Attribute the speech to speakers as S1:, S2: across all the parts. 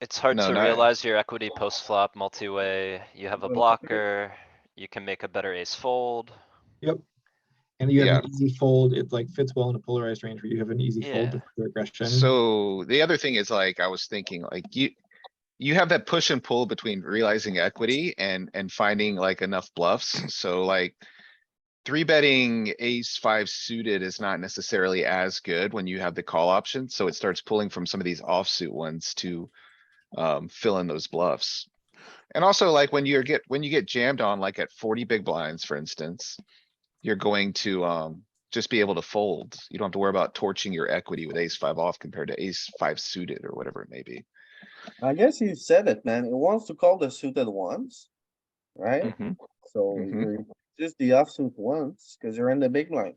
S1: It's hard
S2: No,
S1: to
S2: no.
S1: realize your equity post flop multi-way. You have a blocker. You can make a better ace fold.
S3: And you have an easy fold, it like fits well in a polarized range where you have an easy fold
S1: Yeah.
S3: with regression.
S2: So the other thing is like, I was thinking like you, you have that push and pull between realizing equity and, and finding like enough bluffs. So like three betting ace five suited is not necessarily as good when you have the call option. So it starts pulling from some of these offsuit ones to um, fill in those bluffs. And also like when you're get, when you get jammed on like at forty big blinds, for instance, you're going to, um, just be able to fold. You don't have to worry about torching your equity with ace five off compared to ace five suited or whatever it may be.
S4: I guess you said it, man. It wants to call the suited ones. Right?
S1: Mm-hmm.
S4: So
S2: Mhm.
S4: you're just the offsuit ones, cause you're in the big line.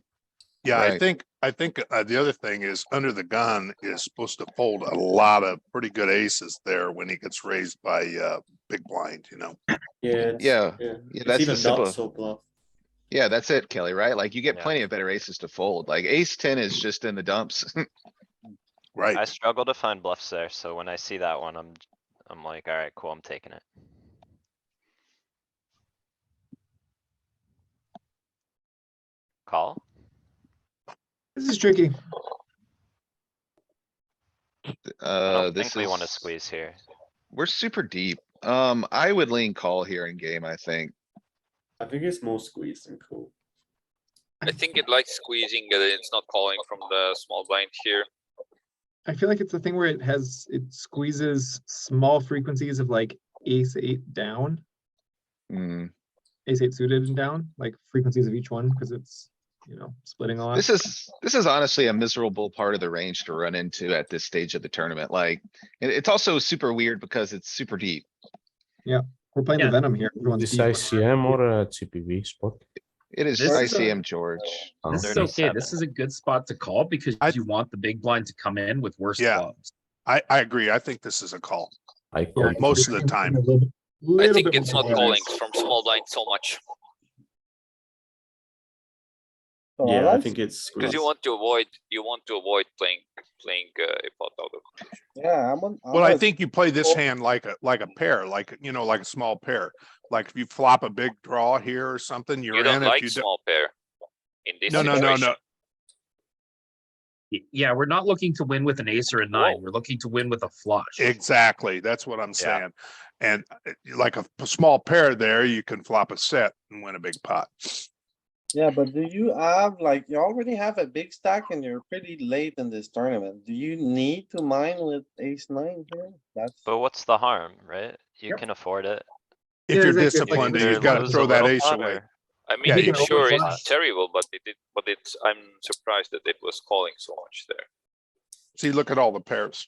S5: Yeah, I
S2: Right.
S5: think, I think uh, the other thing is under the gun is supposed to fold a lot of pretty good aces there when he gets raised by uh big blind, you know?
S6: Yeah. it's-
S2: Yeah,
S6: Yeah.
S2: yeah,
S6: It's
S2: that's the
S6: even not
S2: simple,
S6: so bluff.
S2: yeah, that's it, Kelly, right? Like you get
S1: Yeah.
S2: plenty of better aces to fold, like ace ten is just in the dumps.
S1: I
S5: Right,
S1: struggle to find bluffs there, so when I see that one, I'm, I'm like, alright, cool, I'm taking it. Call?
S3: This is tricky.
S1: I
S2: Uh,
S1: don't
S2: this
S1: think we wanna
S2: is-
S1: squeeze here.
S2: We're super deep. Um, I would lean call here in game, I think.
S6: I think it's more squeezed than cool.
S7: I think it likes squeezing, uh, it's not calling from the small blind here.
S3: I feel like it's the thing where it has, it squeezes small frequencies of like ace eight down,
S2: Hmm,
S3: ace eight suited and down, like frequencies of each one, because it's, you know, splitting a lot.
S2: this is, this is honestly a miserable part of the range to run into at this stage of the tournament, like. It, it's also super weird because it's super deep.
S3: We're playing the
S8: Yeah.
S3: venom here. everyone's
S9: This
S3: deep.
S9: ICM or a TPV spot?
S2: It is
S8: This is a-
S2: ICM, George.
S9: Oh.
S8: This
S5: Um,
S8: is okay. This
S1: 37.
S8: is a good spot to call because
S5: I-
S8: you want the big blind to come in with worse
S5: Yeah.
S8: clubs.
S5: I, I agree. I think this is a call.
S9: I
S3: Yeah,
S9: call.
S5: Most of the
S3: I'm playing
S5: time.
S3: a little-
S7: I
S3: little
S7: think
S3: bit
S7: it's
S3: more
S7: not
S3: polarized.
S7: calling from small blind so much,
S4: So
S6: Yeah, I
S4: like-
S6: think it's squeezed.
S7: because you want to avoid, you want to avoid playing, playing uh, a pot out of.
S4: Yeah, I'm on. I'm
S5: Well, I
S4: on-
S5: think you play this
S4: Well-
S5: hand like a, like a pair, like, you know, like a small pair. Like if you flop a big draw here or something, you're
S7: You
S5: in.
S7: don't
S5: If
S7: like
S5: you don't,
S7: small pair. In this
S5: no, no, no, no.
S7: situation,
S8: Y- Yeah, we're not looking to win with an ace or a nine.
S7: Whoa.
S8: We're looking to win with a flush.
S5: Exactly. That's what I'm
S1: Yeah.
S5: saying. And uh, like a p- small pair there, you can flop a set and win a big pot.
S4: Yeah, but do you have, like, you already have a big stack and you're pretty late in this tournament. Do you need to mine with ace nine here? That's.
S1: But what's the harm, right? You
S8: Yep.
S1: can afford it.
S3: Yeah,
S5: If you're
S3: exactly.
S1: You
S5: disciplined,
S1: can
S5: you've
S1: either
S5: got to
S1: lose a
S5: throw that
S1: little
S5: ace
S1: pot
S5: away.
S1: or-
S7: I
S5: Yeah,
S7: mean,
S5: you
S3: can
S7: sure,
S3: overflop.
S7: it's terrible, but it did, but it's, I'm surprised that it was calling so much there.
S5: See, look at all the pairs.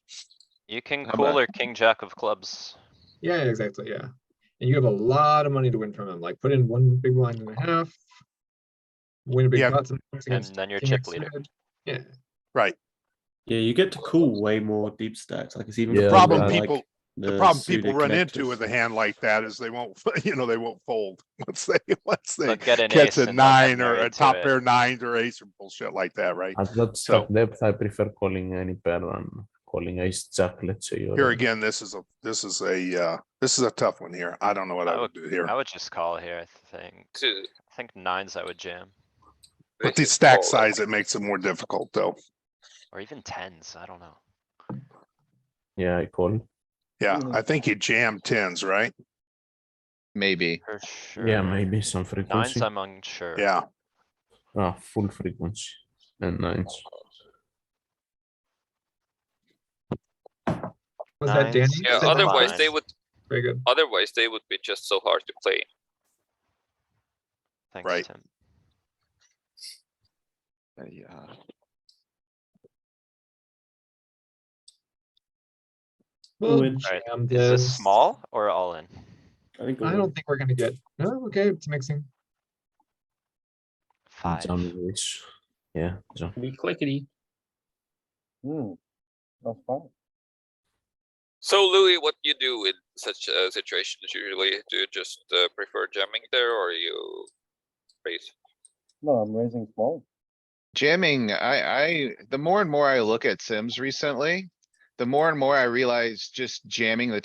S1: You can
S2: How
S1: cool
S2: about-
S1: or king jack of clubs.
S3: Yeah, exactly, yeah. And you have a lot of money to win from him, like put in one big blind and a half. Win a big
S5: Yeah.
S3: pot
S1: And
S3: sometimes against
S1: then you're
S3: king
S1: chip
S3: X
S1: leader.
S3: suited. Yeah.
S5: Right.
S6: Yeah, you get to call way more deep stacks. Like it's even.
S9: The Yeah,
S5: Problem
S9: but
S6: like,
S5: people, the
S6: the
S5: problem people
S6: suited
S5: run into
S6: connectors.
S5: with a hand like that is they won't, you know, they won't fold. Once they, once they
S1: But get an ace
S5: catch a
S1: and then get
S5: nine or
S1: married
S5: a
S1: to
S5: top
S1: it.
S5: pair nines or ace or bullshit like that, right?
S9: At that
S5: So-
S9: sub depth, I prefer calling any pair than calling ace jack, let's say. or-
S5: Here again, this is a, this is a, uh, this is a tough one here. I don't know what I would do here.
S1: I would just call here, I think.
S7: This is-
S1: I think nines I would jam,
S5: With the
S7: this is
S5: stack
S7: call, I
S5: size,
S7: think.
S5: it makes it more difficult though.
S1: or even tens, I don't know.
S9: Yeah, I call.
S5: Yeah,
S4: Mhm.
S5: I think you jam tens, right?
S2: Maybe.
S1: For sure.
S9: Yeah, maybe some
S1: Nines,
S9: frequency.
S1: I'm unsure.
S5: Yeah,
S9: Ah, full frequency and nines.
S3: Was that
S1: Nines. Yeah,
S3: Danny?
S7: Yeah,
S3: Is that Danny?
S7: otherwise they
S1: line.
S7: would,
S3: Very good.
S7: otherwise they would be just so hard to play.
S1: Thanks,
S5: Right.
S1: Tim.
S2: Yeah.
S3: Well,
S6: Would-
S1: Alright,
S3: jam
S1: um, Is
S3: this.
S1: this small or all in?
S6: I think.
S3: I don't think we're gonna get, no, okay, it's mixing.
S1: Five.
S9: Jam the ace. Yeah, jam.
S8: We clickety.
S4: Hmm. That's fine.
S7: So Louis, what you do with such uh, situations usually? Do you just uh, prefer jamming there or you raise?
S4: No, I'm raising small.
S2: Jamming, I, I, the more and more I look at Sims recently, the more and more I realize just jamming the